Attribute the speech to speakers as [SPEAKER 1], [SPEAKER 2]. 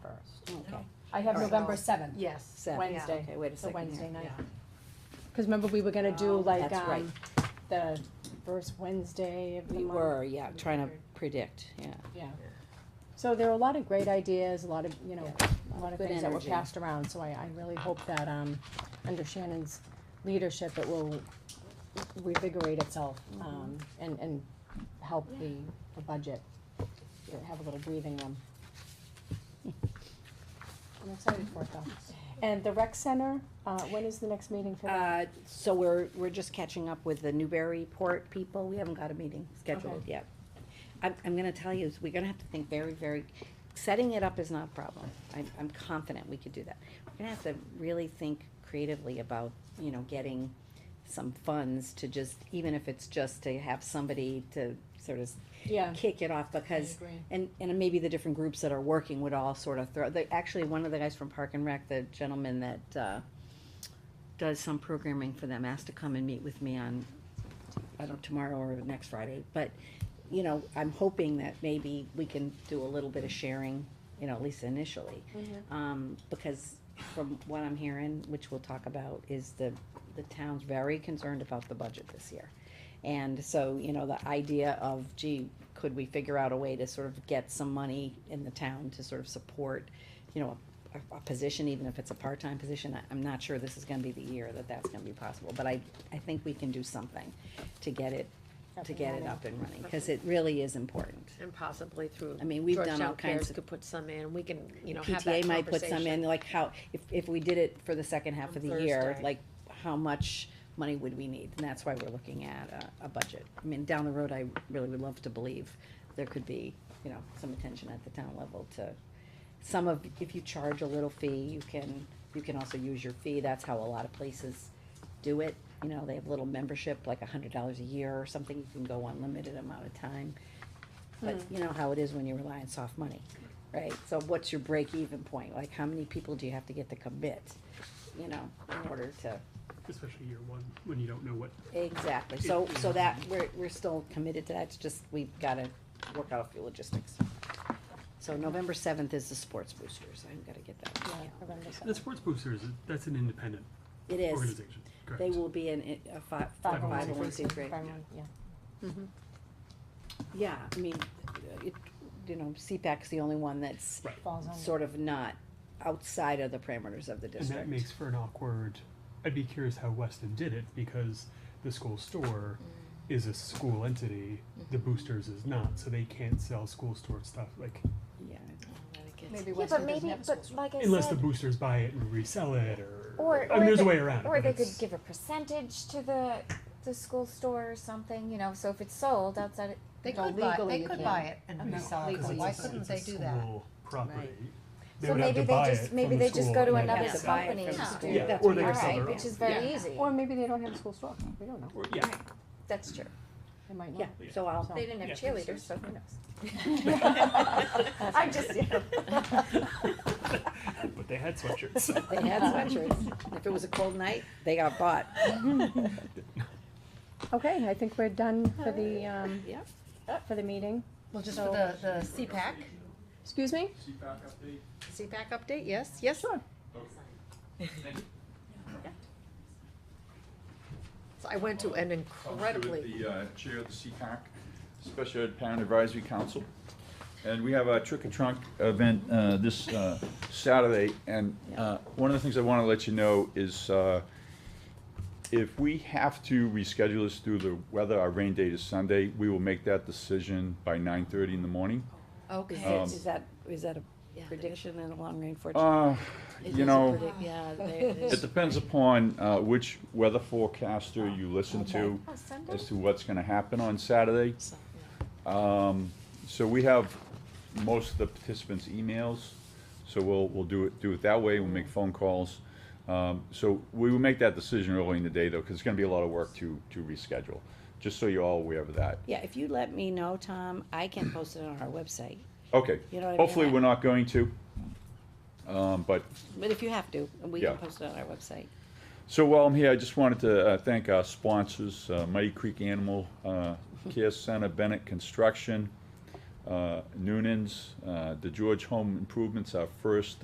[SPEAKER 1] I have
[SPEAKER 2] All right.
[SPEAKER 1] November seventh,
[SPEAKER 2] Yes.
[SPEAKER 3] Seven.
[SPEAKER 1] Wednesday,
[SPEAKER 3] Okay, wait a
[SPEAKER 1] so
[SPEAKER 3] second.
[SPEAKER 1] Wednesday
[SPEAKER 3] here.
[SPEAKER 1] night. Cause remember, we were gonna do
[SPEAKER 2] Oh.
[SPEAKER 1] like,
[SPEAKER 3] That's right.
[SPEAKER 1] um, the first Wednesday of the
[SPEAKER 3] We
[SPEAKER 1] month.
[SPEAKER 3] were, yeah, trying to predict, yeah.
[SPEAKER 1] Yeah. So there are a lot of great ideas, a lot of, you know, a lot of
[SPEAKER 3] Good
[SPEAKER 1] things that were
[SPEAKER 3] energy.
[SPEAKER 1] passed around, so I, I really hope that, um, under Shannon's leadership, it will revigorate itself,
[SPEAKER 3] Mm-hmm.
[SPEAKER 1] um, and, and help the, the budget, um, have a little breathing room. I'm excited for it though. And the rec center, uh, when is the next meeting for that?
[SPEAKER 3] Uh, so we're, we're just catching up with the Newburyport people, we haven't got a meeting scheduled yet. I'm, I'm gonna tell you, is we're gonna have to think very, very, setting it up is not a problem, I'm, I'm confident we could do that. We're gonna have to really think creatively about, you know, getting some funds to just, even if it's just to have somebody to sort of
[SPEAKER 1] Yeah.
[SPEAKER 3] kick it off, because
[SPEAKER 1] agree.
[SPEAKER 3] and, and maybe the different groups that are working would all sort of throw, they, actually, one of the guys from Park and Rec, the gentleman that, uh, does some programming for them, asked to come and meet with me on, I don't know, tomorrow or next Friday, but, you know, I'm hoping that maybe we can do a little bit of sharing, you know, at least initially.
[SPEAKER 1] Mm-hmm.
[SPEAKER 3] Um, because from what I'm hearing, which we'll talk about, is the, the town's very concerned about the budget this year. And so, you know, the idea of, gee, could we figure out a way to sort of get some money in the town to sort of support, you know, a, a position, even if it's a part-time position, I, I'm not sure this is gonna be the year that that's gonna be possible, but I, I think we can do something to get it,
[SPEAKER 1] Up
[SPEAKER 3] to
[SPEAKER 1] and
[SPEAKER 3] get it
[SPEAKER 1] running.
[SPEAKER 3] up and running, cause it really is important.
[SPEAKER 2] And possibly through.
[SPEAKER 3] I mean, we've done all
[SPEAKER 2] Georgetown
[SPEAKER 3] kinds
[SPEAKER 2] Cares
[SPEAKER 3] of-
[SPEAKER 2] Could put some in, we can, you know, have that
[SPEAKER 3] PTA might put some in,
[SPEAKER 2] conversation.
[SPEAKER 3] like how, if, if we did it for the second half
[SPEAKER 2] On
[SPEAKER 3] of the year,
[SPEAKER 2] Thursday.
[SPEAKER 3] like how much money would we need? And that's why we're looking at a, a budget. I mean, down the road, I really would love to believe there could be, you know, some attention at the town level to some of, if you charge a little fee, you can, you can also use your fee. That's how a lot of places do it. You know, they have little membership, like a hundred dollars a year or something. You can go unlimited amount of time. But
[SPEAKER 2] Hmm.
[SPEAKER 3] you know how it is when you rely on soft money, right? So what's your break even point? Like, how many people do you have to get to commit, you know, in order to?
[SPEAKER 4] Especially year one, when you don't know what,
[SPEAKER 3] Exactly, so, so that, we're, we're still committed to that, it's just, we've gotta work out a few logistics. So November seventh is the sports boosters, I've gotta get that.
[SPEAKER 1] Yeah, November
[SPEAKER 4] the
[SPEAKER 1] 7th.
[SPEAKER 4] sports boosters, that's an independent
[SPEAKER 3] It is,
[SPEAKER 4] organization,
[SPEAKER 3] they
[SPEAKER 4] correct?
[SPEAKER 3] will be in it- a five,
[SPEAKER 1] Five oh
[SPEAKER 3] five oh one
[SPEAKER 1] one
[SPEAKER 3] C three.
[SPEAKER 1] Five oh one, yeah.
[SPEAKER 3] Yeah, I mean, it, you know, CPAC's the only one that's
[SPEAKER 4] Right.
[SPEAKER 1] Falls on.
[SPEAKER 3] sort of not outside of the parameters of the
[SPEAKER 4] And
[SPEAKER 3] district.
[SPEAKER 4] that makes for an awkward, I'd be curious how Weston did it, because the school store
[SPEAKER 5] Mm.
[SPEAKER 4] is a school entity, the
[SPEAKER 5] Mm-hmm.
[SPEAKER 4] boosters is not, so they can't sell school store stuff, like,
[SPEAKER 3] Yeah.
[SPEAKER 1] Maybe Weston
[SPEAKER 5] Yeah, but
[SPEAKER 1] doesn't
[SPEAKER 5] maybe,
[SPEAKER 1] have a school.
[SPEAKER 5] but like I
[SPEAKER 4] unless the
[SPEAKER 5] said,
[SPEAKER 4] boosters buy it and resell it, or,
[SPEAKER 5] Or-
[SPEAKER 4] I mean,
[SPEAKER 5] or
[SPEAKER 4] there's a
[SPEAKER 5] they-
[SPEAKER 4] way around it.
[SPEAKER 5] or
[SPEAKER 4] but
[SPEAKER 5] they could
[SPEAKER 4] it's-
[SPEAKER 5] give a percentage to the the school store or something, you know. So if it's sold outside, it,
[SPEAKER 2] They
[SPEAKER 1] No, could buy- they legally you could can't. buy
[SPEAKER 2] it
[SPEAKER 4] you know, 'cause it's a- it's a school Property. They
[SPEAKER 5] so
[SPEAKER 4] would have to
[SPEAKER 5] maybe they
[SPEAKER 4] buy it
[SPEAKER 5] just
[SPEAKER 4] from
[SPEAKER 5] maybe
[SPEAKER 4] the
[SPEAKER 5] they just
[SPEAKER 4] school
[SPEAKER 5] go to
[SPEAKER 4] and then
[SPEAKER 5] another
[SPEAKER 3] have to
[SPEAKER 4] sell it.
[SPEAKER 3] buy it
[SPEAKER 5] company,
[SPEAKER 3] from the school.
[SPEAKER 4] Yeah,
[SPEAKER 3] That's
[SPEAKER 4] or they
[SPEAKER 3] what
[SPEAKER 5] all
[SPEAKER 3] I'm
[SPEAKER 4] could sell their
[SPEAKER 5] right,
[SPEAKER 4] own.
[SPEAKER 5] which is very easy.
[SPEAKER 1] Or maybe they don't have a school store, we don't know,
[SPEAKER 4] Or- Yeah,
[SPEAKER 5] That's true.
[SPEAKER 1] they might
[SPEAKER 3] Yeah,
[SPEAKER 1] not.
[SPEAKER 3] so I'll,
[SPEAKER 5] They didn't have cheerleaders, so who knows?
[SPEAKER 1] I
[SPEAKER 5] just-
[SPEAKER 4] but they had sweatshirts.
[SPEAKER 3] They had sweatshirts. If it was a cold night, they got bought.
[SPEAKER 1] Okay, I think we're done for the, um,
[SPEAKER 3] Yep.
[SPEAKER 1] for the meeting.
[SPEAKER 2] Well, just
[SPEAKER 1] for
[SPEAKER 2] for the, the CPAC,
[SPEAKER 1] Excuse me?
[SPEAKER 6] CPAC update?
[SPEAKER 2] CPAC update, yes, yes? Sure. So I went to an incredibly,
[SPEAKER 6] The uh, chair of the CPAC, Special Ed Parent Advisory Council. And we have a trick or trunk event uh, this uh, Saturday. And uh, one of the things I want to let you know is uh, if we have to reschedule this through the weather, our rain date is Sunday, we will make that decision by 9:30 in the morning. Um,
[SPEAKER 3] Is
[SPEAKER 2] okay.
[SPEAKER 3] it- is that, is that a prediction in a long range forecast?
[SPEAKER 6] Uh, You know.
[SPEAKER 3] Yeah,
[SPEAKER 6] It depends upon uh, which weather forecaster you listen to
[SPEAKER 5] Oh, Sunday.
[SPEAKER 6] as to what's gonna happen on Saturday. Um, So we have most of the participants' emails, so we'll, we'll do it, do it that way, we'll make phone calls. Um, So we will make that decision early in the day, though, because it's gonna be a lot of work to, to reschedule, just so you're all aware of that.
[SPEAKER 3] Yeah, if you let me know, Tom, I can post it on our website,
[SPEAKER 6] Okay,
[SPEAKER 3] You know what I mean?
[SPEAKER 6] hopefully we're not going to. Um, But
[SPEAKER 3] but if you have to, we can
[SPEAKER 6] Yeah.
[SPEAKER 3] post it on our website.
[SPEAKER 6] So while I'm here, I just wanted to uh, thank our sponsors, uh, Mighty Creek Animal uh, Care Center, Bennett Construction, uh, Noonan's, uh, the George Home Improvements, our first